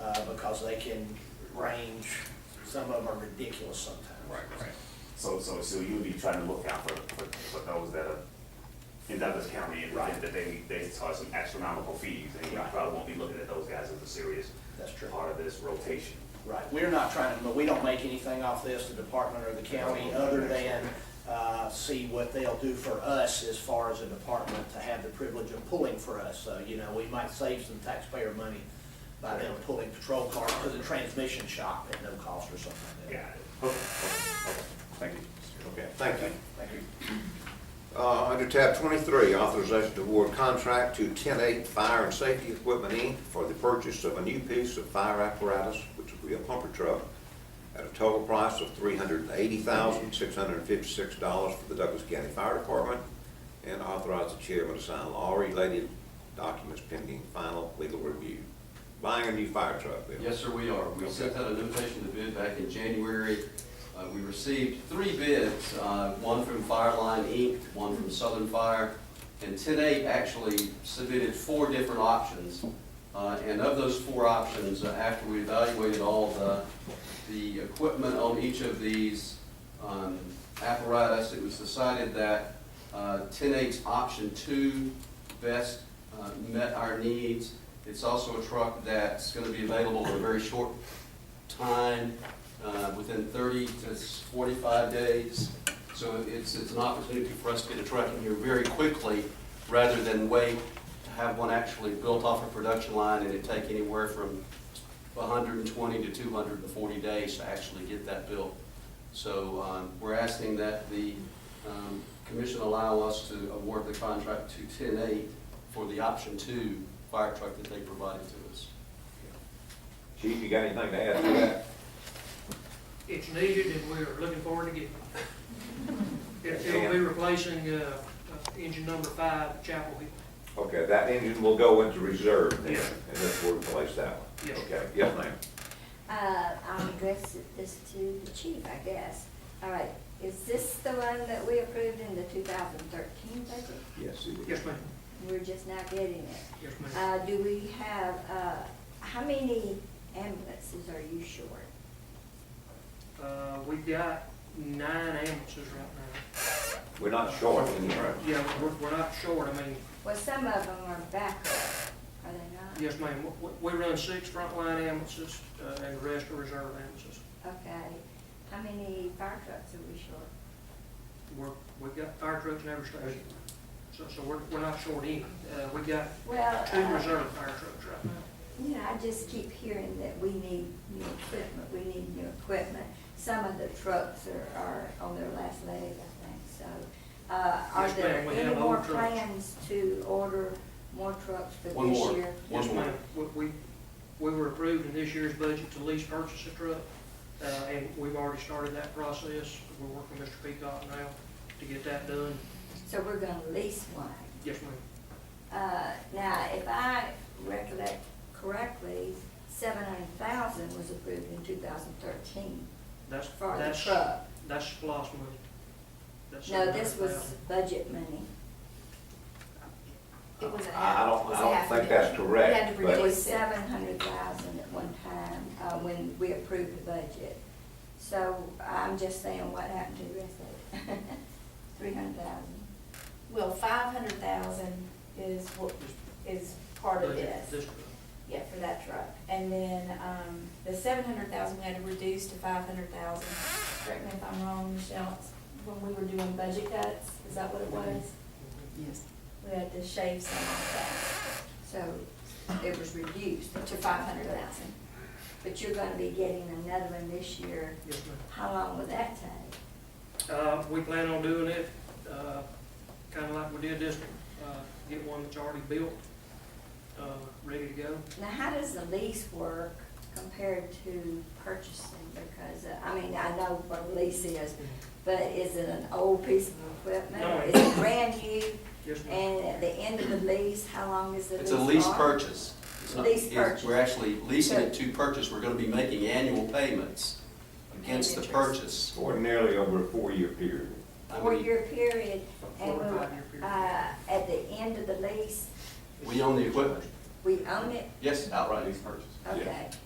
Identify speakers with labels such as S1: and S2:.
S1: uh, because they can range, some of them are ridiculous sometimes.
S2: Right, right.
S3: So, so, so you would be trying to look out for, for, for those that are in Douglas County and
S1: Right.
S3: that they, they saw some astronomical fees, and you
S1: Right.
S3: probably won't be looking at those guys as a serious
S1: That's true.
S3: part of this rotation.
S1: Right, we're not trying to, but we don't make anything off this, the department or the county, other than, uh, see what they'll do for us as far as a department to have the privilege of pulling for us. So, you know, we might save some taxpayer money by them pulling patrol cars to the transmission shop at no cost or something like that.
S3: Got it.
S2: Thank you.
S4: Okay, thank you.
S1: Thank you.
S4: Uh, under tab twenty-three, authorization to award contract to ten-eight Fire and Safety Equipment Inc. for the purchase of a new piece of fire apparatus, which will be a pumper truck, at a total price of three hundred and eighty thousand, six hundred and fifty-six dollars for the Douglas County Fire Department, and authorize the chairman to sign all related documents pending final legal review. Buying a new fire truck, Bill.
S5: Yes, sir, we are. We
S4: Okay.
S5: sent out a notification to bid back in January. Uh, We received three bids, uh, one from Fireline Inc., one from Southern Fire, and 108 actually submitted four different options. Uh, And of those four options, uh, after we evaluated all the, the equipment on each of these um, apparatus, it was decided that 108's option two best uh, met our needs. It's also a truck that's going to be available in a very short time, uh, within 30 to 45 days. So it's, it's an opportunity for us to get a truck in here very quickly, rather than wait to have one actually built off a production line, and it take anywhere from 120 to 240 days to actually get that built. So um, we're asking that the um, commission allow us to award the contract to 10-8 for the option two fire truck that they provided to us.
S4: Chief, you got anything to add to that?
S6: It's needed and we're looking forward to getting it. It- It'll be replacing, uh, uh, engine number five, Chapel Hill.
S4: Okay, that engine will go into reserve then,
S6: Yeah.
S4: and then we'll replace that one.
S6: Yes.
S4: Okay, yes, ma'am.
S7: Uh, I'll address it- this to the chief, I guess. All right, is this the one that we approved in the two thousand thirteen budget?
S4: Yes, it is.
S6: Yes, ma'am.
S7: We're just now getting it.
S6: Yes, ma'am.
S7: Uh, do we have, uh, how many ambulances are you short?
S6: Uh, we've got nine ambulances right
S4: We're not short anywhere.
S6: now. Yeah, we're, we're not short. I mean,
S7: Well, some of them are backup, are they not?
S6: yes, ma'am, W- w- we run six frontline ambulances, uh, and the rest are reserve ambulances.
S7: Okay, how many fire trucks are we short?
S6: We're, we've got fire trucks in every station. So, so we're, we're not short any. Uh, we've got
S7: Well,
S6: two
S7: uh,
S6: reserve fire trucks right now.
S7: you know, I just keep hearing that we need new equipment, we need new equipment. Some of the trucks are, are on their last leg, I think, so. Uh, are
S6: Yes,
S7: there
S6: ma'am, we
S7: any
S6: have
S7: more
S6: old trucks.
S7: plans to order more trucks for
S5: One
S7: this
S5: more.
S7: year?
S5: One
S6: Yes,
S5: more.
S6: ma'am. We, we- we were approved in this year's budget to lease purchase a truck, uh, and we've already started that process. We're working with Mr. Peacock now to get that done.
S7: So we're gonna lease one.
S6: Yes, ma'am.
S7: Uh, now, if I recollect correctly, seven hundred thousand was approved in two thousand thirteen
S6: That's,
S7: for the
S6: that's,
S7: truck.
S6: that's SPOS money. That's
S7: No, this was
S6: $700,000.
S7: budget money.
S8: It was a half.
S4: I I don't,
S8: it was
S4: I
S8: a half
S4: don't
S8: a
S4: think that's
S8: million. We had
S4: correct,
S8: to
S4: but
S7: It
S8: reduce-
S7: was seven hundred thousand at one time, uh, when we approved the budget. So I'm just saying what happened to the rest of it? Three hundred thousand.
S8: Well, five hundred thousand is what, is part of
S6: Budget,
S8: this,
S6: truck.
S8: yeah, for that truck. And then, um, the seven hundred thousand, we had to reduce to five hundred thousand. Correct me if I'm wrong, Michelle, it's when we were doing budget cuts, is that what it was?
S9: Yes.
S8: We had to shave some of
S7: So it was reduced
S8: that to five hundred thousand.
S7: But you're gonna be getting another one this year.
S6: Yes, ma'am.
S7: How long will that take?
S6: Uh, we plan on doing it, uh, kinda like we did this one, uh, get one that's already built, uh, ready to go.
S7: Now, how does the lease work compared to purchasing? Because, uh, I mean, I know what a lease is, but is it an old piece of equipment?
S6: No.
S7: or Is it brand new?
S6: Yes, ma'am.
S7: And at the end of the lease, how long is the lease?
S5: It's a lease
S7: for?
S5: purchase. It's not-
S7: Lease
S5: it's-
S7: purchase.
S5: We're actually leasing it to purchase. We're going to be making annual payments against the
S8: And interest.
S5: purchase.
S4: ordinarily over a four-year period.
S5: I mean,
S7: Four-year period,
S6: Four
S7: and
S6: or
S7: we'll,
S6: five-year period.
S7: uh, at the end of the lease,
S5: We own the equipment.
S7: we own it,
S5: Yes, outright lease purchase.
S7: okay.